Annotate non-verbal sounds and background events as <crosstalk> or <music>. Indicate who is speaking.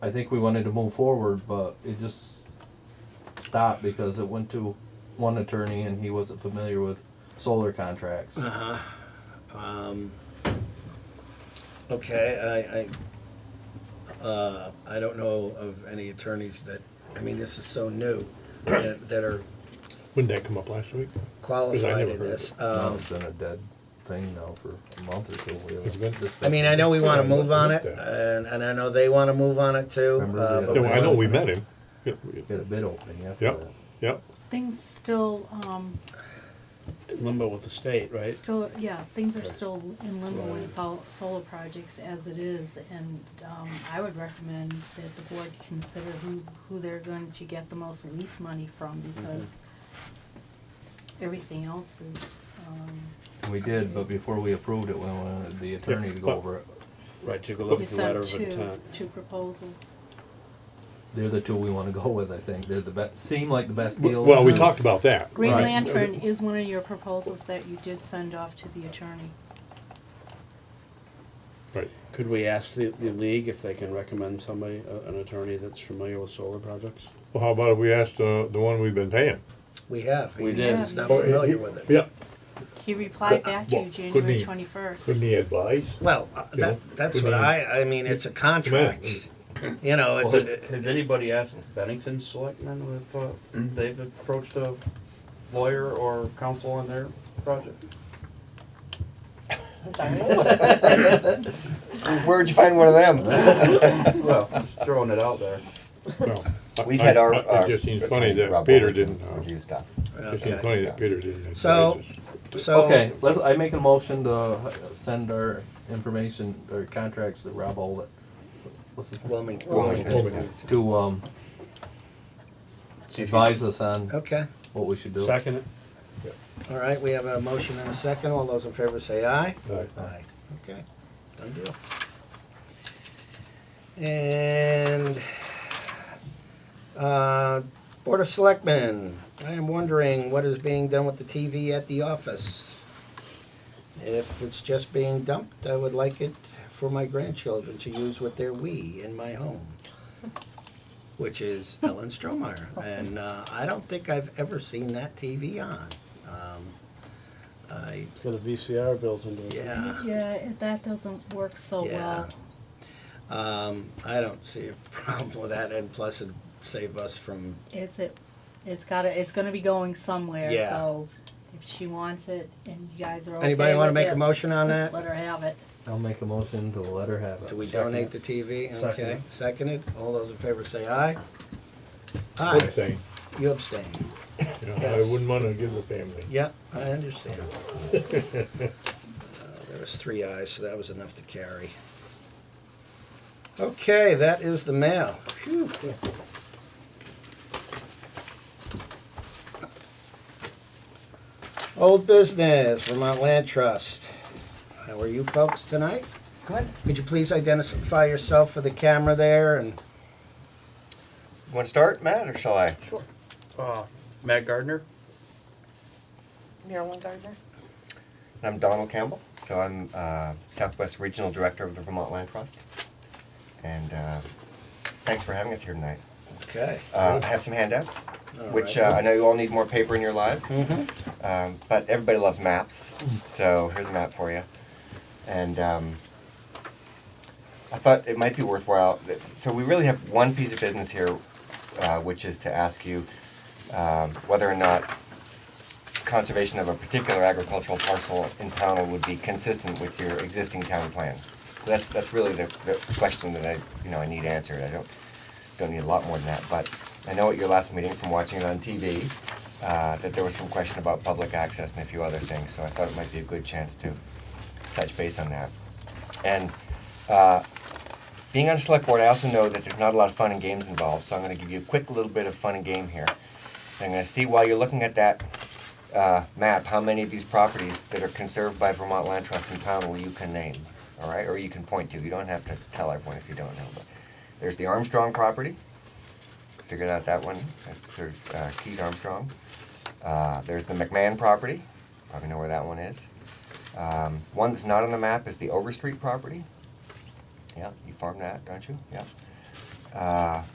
Speaker 1: I think we wanted to move forward, but it just stopped because it went to one attorney and he wasn't familiar with solar contracts.
Speaker 2: Uh-huh.
Speaker 3: Um, okay, I, I, uh, I don't know of any attorneys that, I mean, this is so new, that, that are
Speaker 2: Wouldn't that come up last week?
Speaker 3: qualified
Speaker 2: never
Speaker 3: in
Speaker 2: heard of
Speaker 3: this.
Speaker 2: it.
Speaker 1: Now
Speaker 3: Um,
Speaker 1: it's been a dead thing now for a month or two. We
Speaker 2: It's been-
Speaker 1: haven't discussed
Speaker 3: I mean, I know we wanna
Speaker 2: Yeah,
Speaker 3: move
Speaker 2: I
Speaker 3: on it,
Speaker 2: looked at
Speaker 3: and, and I know they wanna move on it too.
Speaker 1: Remember
Speaker 3: uh,
Speaker 1: the
Speaker 3: but
Speaker 1: other
Speaker 2: Yeah, well, I know we
Speaker 1: Yeah.
Speaker 2: met him. Yep,
Speaker 1: Get a bid opening after
Speaker 2: Yep,
Speaker 1: that.
Speaker 2: yep.
Speaker 4: Things still, um,
Speaker 5: in limbo with the state, right?
Speaker 4: still, yeah, things are still in limbo in sol- solar projects as it is, and, um, I would recommend that the board consider who, who they're going to get the most lease money from, because everything else is, um,
Speaker 1: And We did, but before we approved it, we wanted the attorney to go
Speaker 2: but-
Speaker 1: over it.
Speaker 5: Right, you go look
Speaker 4: you
Speaker 5: at the letter
Speaker 4: sent
Speaker 5: of
Speaker 4: two,
Speaker 5: intent.
Speaker 4: two proposals.
Speaker 1: They're the two we wanna go with, I think. They're the best, seem like the best deals.
Speaker 2: Well, we
Speaker 1: and-
Speaker 2: talked about that.
Speaker 4: uh, Green
Speaker 1: Right.
Speaker 4: Lantern is one of your proposals that you did send off to the attorney.
Speaker 2: Right.
Speaker 5: Could we ask the, the league if they can recommend somebody, a- an attorney that's familiar with solar projects?
Speaker 2: Well, how about if we asked, uh, the one we've been paying?
Speaker 3: We have,
Speaker 5: We
Speaker 3: he's
Speaker 5: did.
Speaker 3: just not
Speaker 2: Oh, he-
Speaker 3: familiar with it.
Speaker 2: Yep.
Speaker 4: He replied back to you
Speaker 2: well, couldn't
Speaker 4: January
Speaker 2: he-
Speaker 4: twenty-first.
Speaker 2: he advise?
Speaker 3: Well, uh,
Speaker 2: Yeah.
Speaker 3: that, that's
Speaker 2: We
Speaker 3: what
Speaker 2: need-
Speaker 3: I, I mean, it's a contract, you know,
Speaker 6: Well,
Speaker 3: it's,
Speaker 6: has,
Speaker 3: it-
Speaker 6: has anybody asked Bennington Selectmen if uh, they've approached a lawyer or counsel on their project?
Speaker 7: Where'd you find one of them?
Speaker 6: Well, just throwing it out there.
Speaker 7: We've had our.
Speaker 2: It
Speaker 7: our-
Speaker 2: just seems funny that
Speaker 7: Rob
Speaker 2: Peter
Speaker 7: Wilson
Speaker 2: didn't, uh,
Speaker 7: Review stuff.
Speaker 2: it seems
Speaker 3: okay,
Speaker 2: funny that Peter didn't. advise
Speaker 3: So-
Speaker 2: us.
Speaker 3: so.
Speaker 1: Okay, let's, I make a motion to send our information, or contracts to Rob Olet. What's his name?
Speaker 3: Wilmington.
Speaker 2: Wilmington.
Speaker 1: To, um, advise us on
Speaker 3: Okay,
Speaker 1: what we should do.
Speaker 5: Second it.
Speaker 3: all right, we have a motion and a second, all those in favor say aye.
Speaker 2: Right.
Speaker 3: Aye. Okay, done deal. And, uh, Board of Selectmen, I am wondering what is being done with the TV at the office? If it's just being dumped, I would like it for my grandchildren to use with their Wii in my home, which is Ellen Stromeyer. And, uh, I don't think I've ever seen that TV on. Um, I,
Speaker 5: It's got a VCR built into it.
Speaker 3: yeah.
Speaker 4: Yeah, it- that doesn't work so
Speaker 3: Yeah.
Speaker 4: well.
Speaker 3: Um, I don't see a <laughs> problem with that, and plus it'd save us from,
Speaker 4: It's it, it's gotta, it's gonna be going somewhere,
Speaker 3: Yeah.
Speaker 4: so if she wants it and you guys are okay
Speaker 3: anybody wanna
Speaker 4: with
Speaker 3: make
Speaker 4: it,
Speaker 3: a motion on that?
Speaker 4: Let her have it.
Speaker 1: I'll make a motion to let her have it.
Speaker 3: Do we donate the TV?
Speaker 5: Second
Speaker 3: Okay,
Speaker 5: it.
Speaker 3: seconded, all those in favor say aye.
Speaker 2: I'm
Speaker 3: Aye,
Speaker 2: saying,
Speaker 3: you abstain,
Speaker 2: you know, I
Speaker 3: Yes.
Speaker 2: wouldn't wanna give the family.
Speaker 3: yeah, I understand. <laughs> Uh, There was three ayes, so that was enough to carry. Okay, that is the mail, phew. Old business, Vermont Land Trust. How are you folks tonight?
Speaker 7: Good.
Speaker 3: Could you please identify yourself for the camera there and,
Speaker 7: Want to start, Matt, or shall I?
Speaker 6: Sure. Uh, Matt Gardner?
Speaker 8: Marilyn Gardner.
Speaker 7: I'm Donald Campbell, so I'm uh, Southwest Regional Director of the Vermont Land Trust. And uh, thanks for having us here tonight.
Speaker 3: okay.
Speaker 7: Uh, I have some handouts,
Speaker 3: All
Speaker 7: which
Speaker 3: right.
Speaker 7: uh, I know you all need more paper in your lives. Um, but everybody loves maps, so here's a map for you. And um, I thought it might be worthwhile. th- So we really have one piece of business here, uh, which is to ask you um, whether or not conservation of a particular agricultural parcel in Pownell would be consistent with your existing town plan. So that's that's really the, the question that I you know I need answered. I don't don't need a lot more than that, but I know at your last meeting from watching it on TV uh, that there was some question about public access and a few other things. So I thought it might be a good chance to touch base on that. And uh, being on a select board, I also know that there's not a lot of fun and games involved. So I'm going to give you a quick little bit of fun and game here. I'm going to see while you're looking at that uh, map how many of these properties that are conserved by Vermont Land Trust in Pownell you can name, all right, or you can point to. You don't have to tell everyone if you don't know. But there's the Armstrong property. Figured out that one. That's sort of uh, Keith Armstrong. Uh, there's the McMahon property. Probably know where that one is. Um, one that's not on the map is the Overstreet property. Yeah, you farm that, don't you? Yeah. Uh,